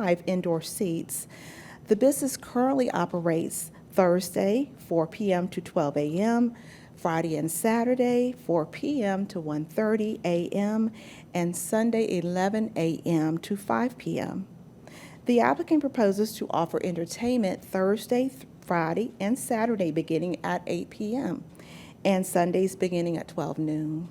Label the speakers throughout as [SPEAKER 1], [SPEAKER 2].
[SPEAKER 1] five indoor seats. The business currently operates Thursday, 4 p.m. to 12 a.m., Friday and Saturday, 4 p.m. to 1:30 a.m., and Sunday, 11 a.m. to 5 p.m. The applicant proposes to offer entertainment Thursday, th- Friday, and Saturday beginning at 8 p.m., and Sundays beginning at 12 noon.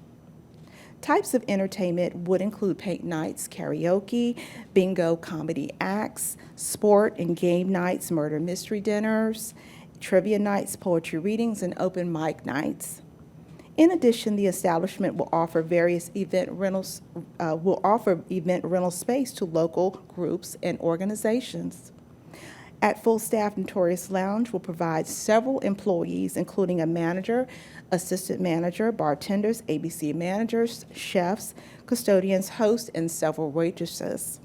[SPEAKER 1] Types of entertainment would include paint nights, karaoke, bingo, comedy acts, sport and game nights, murder mystery dinners, trivia nights, poetry readings, and open mic nights. In addition, the establishment will offer various event rentals, uh, will offer event rental space to local groups and organizations. At full staff, Notorious Lounge will provide several employees, including a manager, assistant manager, bartenders, ABC managers, chefs, custodians, hosts, and several waitresses.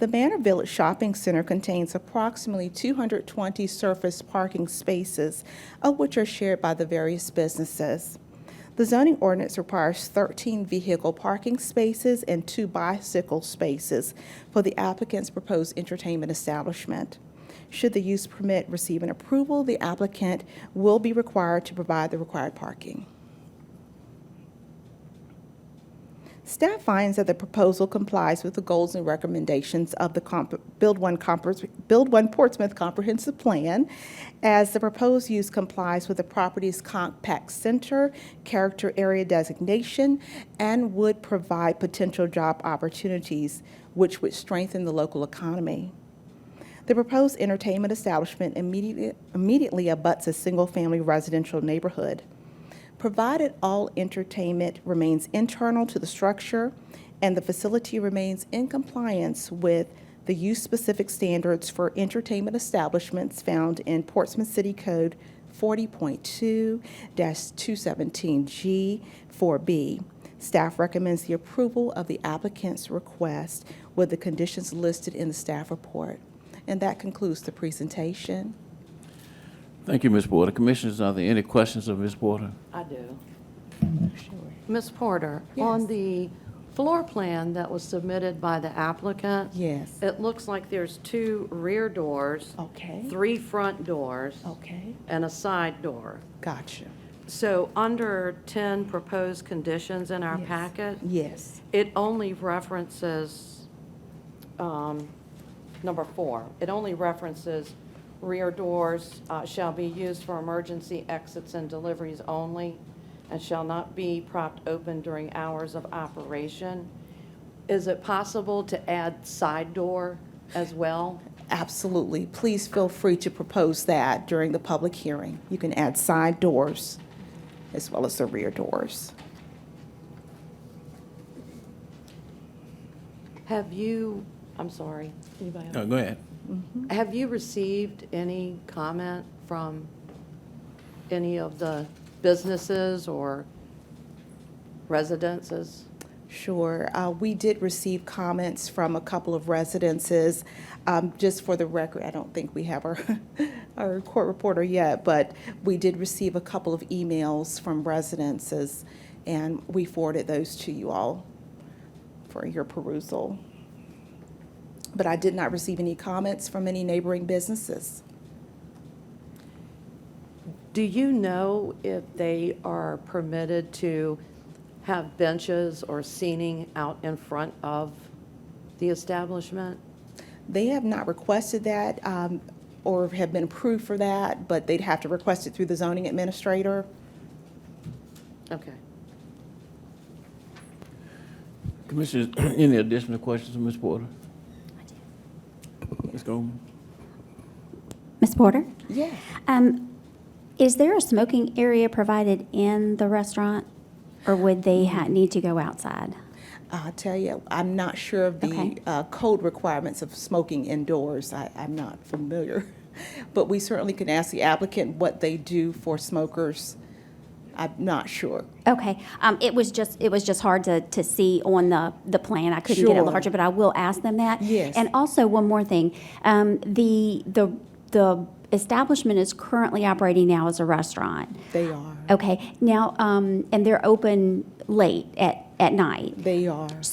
[SPEAKER 1] The Manor Village Shopping Center contains approximately 220 surface parking spaces, of which are shared by the various businesses. The zoning ordinance requires 13 vehicle parking spaces and two bicycle spaces for the applicant's proposed entertainment establishment. Should the use permit receive an approval, the applicant will be required to provide the required parking. Staff finds that the proposal complies with the goals and recommendations of the comp- Build One Compre- Build One Portsmouth Comprehensive Plan, as the proposed use complies with the property's compact center, character area designation, and would provide potential job opportunities, which would strengthen the local economy. The proposed entertainment establishment immediately, immediately abuts a single-family residential neighborhood. Provided all entertainment remains internal to the structure and the facility remains in compliance with the use-specific standards for entertainment establishments found in Portsmouth City Code 40.2-217G4B. Staff recommends the approval of the applicant's request with the conditions listed in the staff report. And that concludes the presentation.
[SPEAKER 2] Thank you, Ms. Porter. Commissioners, are there any questions of Ms. Porter?
[SPEAKER 3] I do.
[SPEAKER 1] Sure.
[SPEAKER 3] Ms. Porter, on the floor plan that was submitted by the applicant,
[SPEAKER 1] Yes.
[SPEAKER 3] it looks like there's two rear doors,
[SPEAKER 1] Okay.
[SPEAKER 3] three front doors,
[SPEAKER 1] Okay.
[SPEAKER 3] and a side door.
[SPEAKER 1] Gotcha.
[SPEAKER 3] So under 10 proposed conditions in our
[SPEAKER 1] Yes.
[SPEAKER 3] packet,
[SPEAKER 1] Yes.
[SPEAKER 3] it only references, um, number four, it only references rear doors uh, shall be used for emergency exits and deliveries only and shall not be propped open during hours of operation. Is it possible to add side door as well?
[SPEAKER 1] Absolutely. Please feel free to propose that during the public hearing. You can add side doors as well as the rear doors.
[SPEAKER 3] Have you, I'm sorry, anybody else?
[SPEAKER 2] No, go ahead.
[SPEAKER 3] Have you received any comment from any of the businesses or residences?
[SPEAKER 1] Sure. Uh, We did receive comments from a couple of residences. Um, Just for the record, I don't think we have our, our court reporter yet, but we did receive a couple of emails from residences, and we forwarded those to you all for your perusal. But I did not receive any comments from any neighboring businesses.
[SPEAKER 3] Do you know if they are permitted to have benches or seating out in front of the establishment?
[SPEAKER 1] They have not requested that um, or have been approved for that, but they'd have to request it through the zoning administrator.
[SPEAKER 3] Okay.
[SPEAKER 2] Commissioners, any additional questions of Ms. Porter? Ms. Goldman?
[SPEAKER 4] Ms. Porter,
[SPEAKER 1] Yeah.
[SPEAKER 4] um, is there a smoking area provided in the restaurant, or would they ha- need to go outside?
[SPEAKER 1] I tell you, I'm not sure of the
[SPEAKER 4] Okay.
[SPEAKER 1] uh, code requirements of smoking indoors. I, I'm not familiar. But we certainly can ask the applicant what they do for smokers. I'm not sure.
[SPEAKER 4] Okay, um, it was just, it was just hard to, to see on the, the plan, I couldn't get it
[SPEAKER 1] Sure.
[SPEAKER 4] larger, but I will ask them that.
[SPEAKER 1] Yes.
[SPEAKER 4] And also, one more thing, um, the, the, the establishment is currently operating now as a restaurant.
[SPEAKER 1] They are.
[SPEAKER 4] Okay, now, um, and they're open late at, at night.
[SPEAKER 1] They are.